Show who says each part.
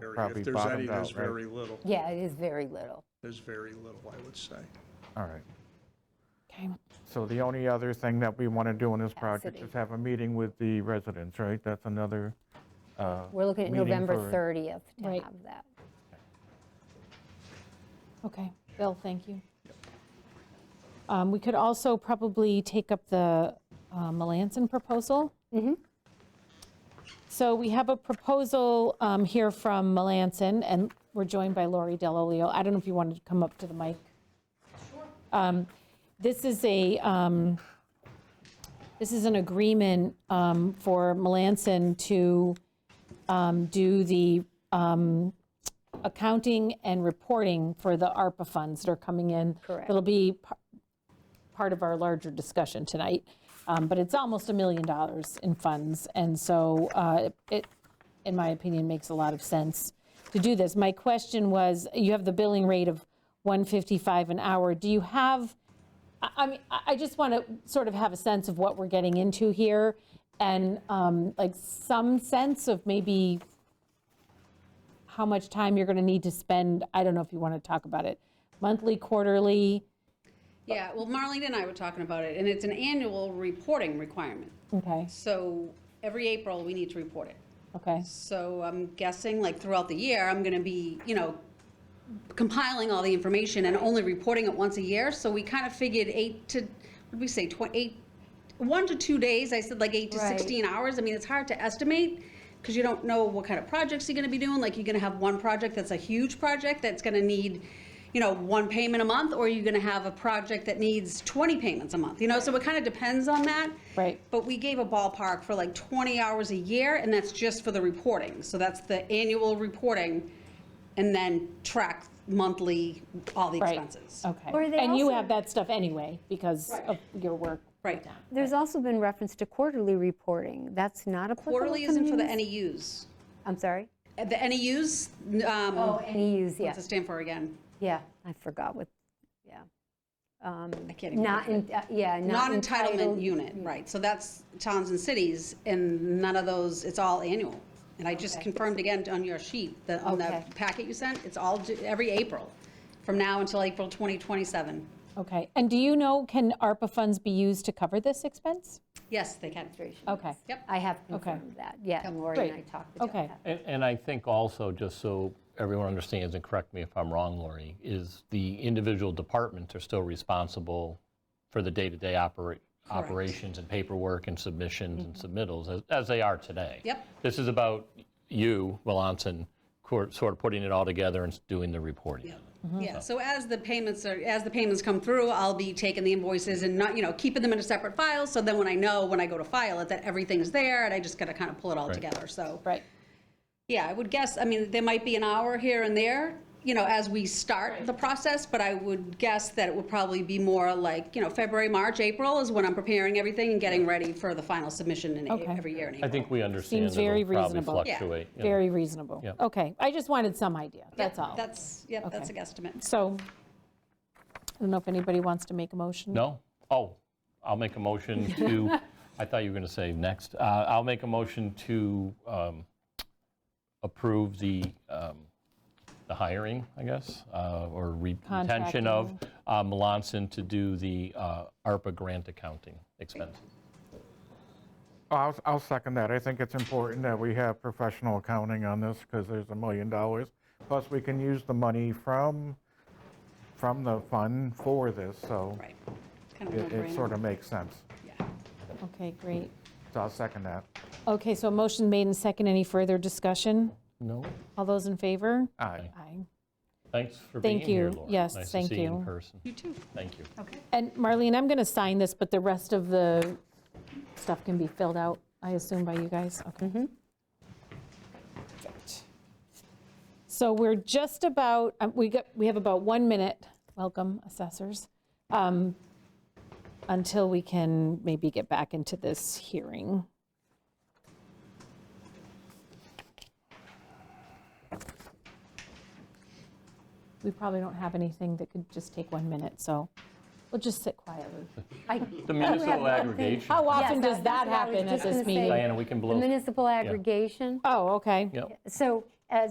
Speaker 1: probably
Speaker 2: If there's any,
Speaker 1: bottomed
Speaker 2: there's
Speaker 1: out, right?
Speaker 2: very little.
Speaker 3: Yeah, it is very little.
Speaker 2: There's very little, I would say.
Speaker 1: All right.
Speaker 3: Okay.
Speaker 1: So the only other thing that we want to do in this project
Speaker 3: Capacity.
Speaker 1: is have a meeting with the residents, right? That's another, uh,
Speaker 3: We're looking at
Speaker 1: Meeting
Speaker 3: November
Speaker 1: for-
Speaker 3: 30th to
Speaker 4: Right.
Speaker 3: have that.
Speaker 4: Okay, Bill, thank you. Um, We could also probably take up the uh, Melanson proposal. So we have a proposal um, here from Melanson, and we're joined by Lori Delolio. I don't know if you wanted to come up to the mic. Um, This is a, um, this is an agreement um, for Melanson to um, do the um, accounting and reporting for the ARPA funds that are coming in.
Speaker 3: Correct.
Speaker 4: It'll be par- part of our larger discussion tonight, um, but it's almost a million dollars in funds. And so uh, it, in my opinion, makes a lot of sense to do this. My question was, you have the billing rate of 155 an hour. Do you have, I- I mean, I I just want to sort of have a sense of what we're getting into here and um, like some sense of maybe how much time you're going to need to spend, I don't know if you want to talk about it, monthly, quarterly?
Speaker 5: Yeah, well, Marlene and I were talking about it, and it's an annual reporting requirement.
Speaker 4: Okay,
Speaker 5: So every April, we need to report it.
Speaker 4: okay,
Speaker 5: So I'm guessing, like, throughout the year, I'm going to be, you know, compiling all the information and only reporting it once a year. So we kind of figured eight to, what did we say, tw- eight, one to two days, I said like eight to
Speaker 3: Right.
Speaker 5: 16 hours. I mean, it's hard to estimate because you don't know what kind of projects you're going to be doing. Like, you're going to have one project that's a huge project that's going to need, you know, one payment a month, or you're going to have a project that needs 20 payments a month, you know? So it kind of depends on that.
Speaker 4: Right.
Speaker 5: But we gave a ballpark for like 20 hours a year, and that's just for the reporting. So that's the annual reporting, and then track monthly all the
Speaker 4: right,
Speaker 5: expenses.
Speaker 4: okay.
Speaker 3: Or they
Speaker 4: And you
Speaker 3: also-
Speaker 4: have that stuff anyway because of your work.
Speaker 5: Right.
Speaker 3: There's also been reference to quarterly reporting. That's not applicable
Speaker 5: Quarterly
Speaker 3: to
Speaker 5: isn't for the
Speaker 3: munis-
Speaker 5: NEUs.
Speaker 3: I'm sorry?
Speaker 5: Uh, The NEUs, um,
Speaker 3: Oh, NEUs,
Speaker 5: what's
Speaker 3: yeah,
Speaker 5: it stand for again?
Speaker 3: yeah, I forgot what, yeah. Um,
Speaker 5: I can't even.
Speaker 3: Not,
Speaker 5: remember.
Speaker 3: in- uh, yeah, not
Speaker 5: Non-entitlement
Speaker 3: entitled.
Speaker 5: unit, right. So that's towns and cities, and none of those, it's all annual. And I just confirmed again on your sheet, that on the
Speaker 3: Okay.
Speaker 5: packet you sent, it's all, due- every April, from now until April 2027.
Speaker 4: Okay, and do you know, can ARPA funds be used to cover this expense?
Speaker 5: Yes, they can.
Speaker 4: Okay,
Speaker 5: Yep.
Speaker 3: I have confirmed that, yeah, and Lori and I
Speaker 4: Great.
Speaker 3: talked about
Speaker 4: okay,
Speaker 3: that.
Speaker 6: And, and I think also, just so everyone understands, and correct me if I'm wrong, Lori, is the individual departments are still responsible for the day-to-day opera- operations and paperwork and submissions and submittals, as, as they are today.
Speaker 5: Mm-hmm. Yep.
Speaker 6: This is about you, Melanson, cor- sort of putting it all together and s- doing the reporting.
Speaker 5: Yeah, so as the payments are, as the payments come through, I'll be taking the invoices and not, you know, keeping them in a separate file, so then when I know, when I go to file it, that everything's there, and I just gotta kind of pull it all together, so.
Speaker 4: right,
Speaker 5: Yeah, I would guess, I mean, there might be an hour here and there, you know, as we start the process, but I would guess that it would probably be more like, you know, February, March, April is when I'm preparing everything and getting ready for the final submission in, a-
Speaker 4: Okay.
Speaker 5: every year in
Speaker 6: I
Speaker 5: April.
Speaker 6: think we understand
Speaker 4: Seems very
Speaker 6: it'll probably
Speaker 4: reasonable.
Speaker 5: Yeah.
Speaker 6: fluctuate. you know.
Speaker 4: very reasonable. Okay, I just wanted some idea, that's all.
Speaker 5: That's, yep, that's a guesstimate.
Speaker 4: So, I don't know if anybody wants to make a motion?
Speaker 6: No? Oh, I'll make a motion to, I thought you were going to say next. Uh, I'll make a motion to um, approve the, um, the hiring, I guess, uh, or re- retention of uh, Melanson to do the uh, ARPA grant accounting expense.
Speaker 1: I'll, I'll second that. I think it's important that we have professional accounting on this because there's a million dollars. Plus, we can use the money from, from the fund for this, so
Speaker 5: Right. Kind of
Speaker 1: it,
Speaker 5: a
Speaker 1: it sort
Speaker 5: no-brainer.
Speaker 1: of makes sense.
Speaker 5: Yeah.
Speaker 4: Okay, great.
Speaker 1: So I'll second that.
Speaker 4: Okay, so a motion made and second, any further discussion?
Speaker 6: No?
Speaker 4: All those in favor?
Speaker 1: Aye.
Speaker 4: Aye.
Speaker 6: Thanks for being
Speaker 4: Thank
Speaker 6: here,
Speaker 4: you.
Speaker 6: Laura.
Speaker 4: Yes,
Speaker 6: Nice
Speaker 4: thank
Speaker 6: to see you
Speaker 4: you.
Speaker 6: in person.
Speaker 5: You too.
Speaker 6: Thank you.
Speaker 5: Okay.
Speaker 4: And Marlene, I'm going to sign this, but the rest of the stuff can be filled out, I assume, by you guys? Okay. Perfect. So we're just about, um, we got, we have about one minute, welcome assessors, um, until we can maybe get back into this hearing. We probably don't have anything that could just take one minute, so we'll just sit quietly.
Speaker 3: I-
Speaker 6: The
Speaker 3: have
Speaker 6: municipal
Speaker 3: nothing.
Speaker 6: aggregation.
Speaker 4: How
Speaker 3: Yes,
Speaker 4: often
Speaker 3: I-
Speaker 4: does
Speaker 3: that's
Speaker 4: that
Speaker 3: what I was
Speaker 4: happen at
Speaker 3: just
Speaker 4: this
Speaker 3: gonna say.
Speaker 4: meeting?
Speaker 6: Diana, we can
Speaker 3: The
Speaker 6: blow.
Speaker 3: municipal aggregation,
Speaker 4: Oh, okay.
Speaker 6: Yep.
Speaker 3: so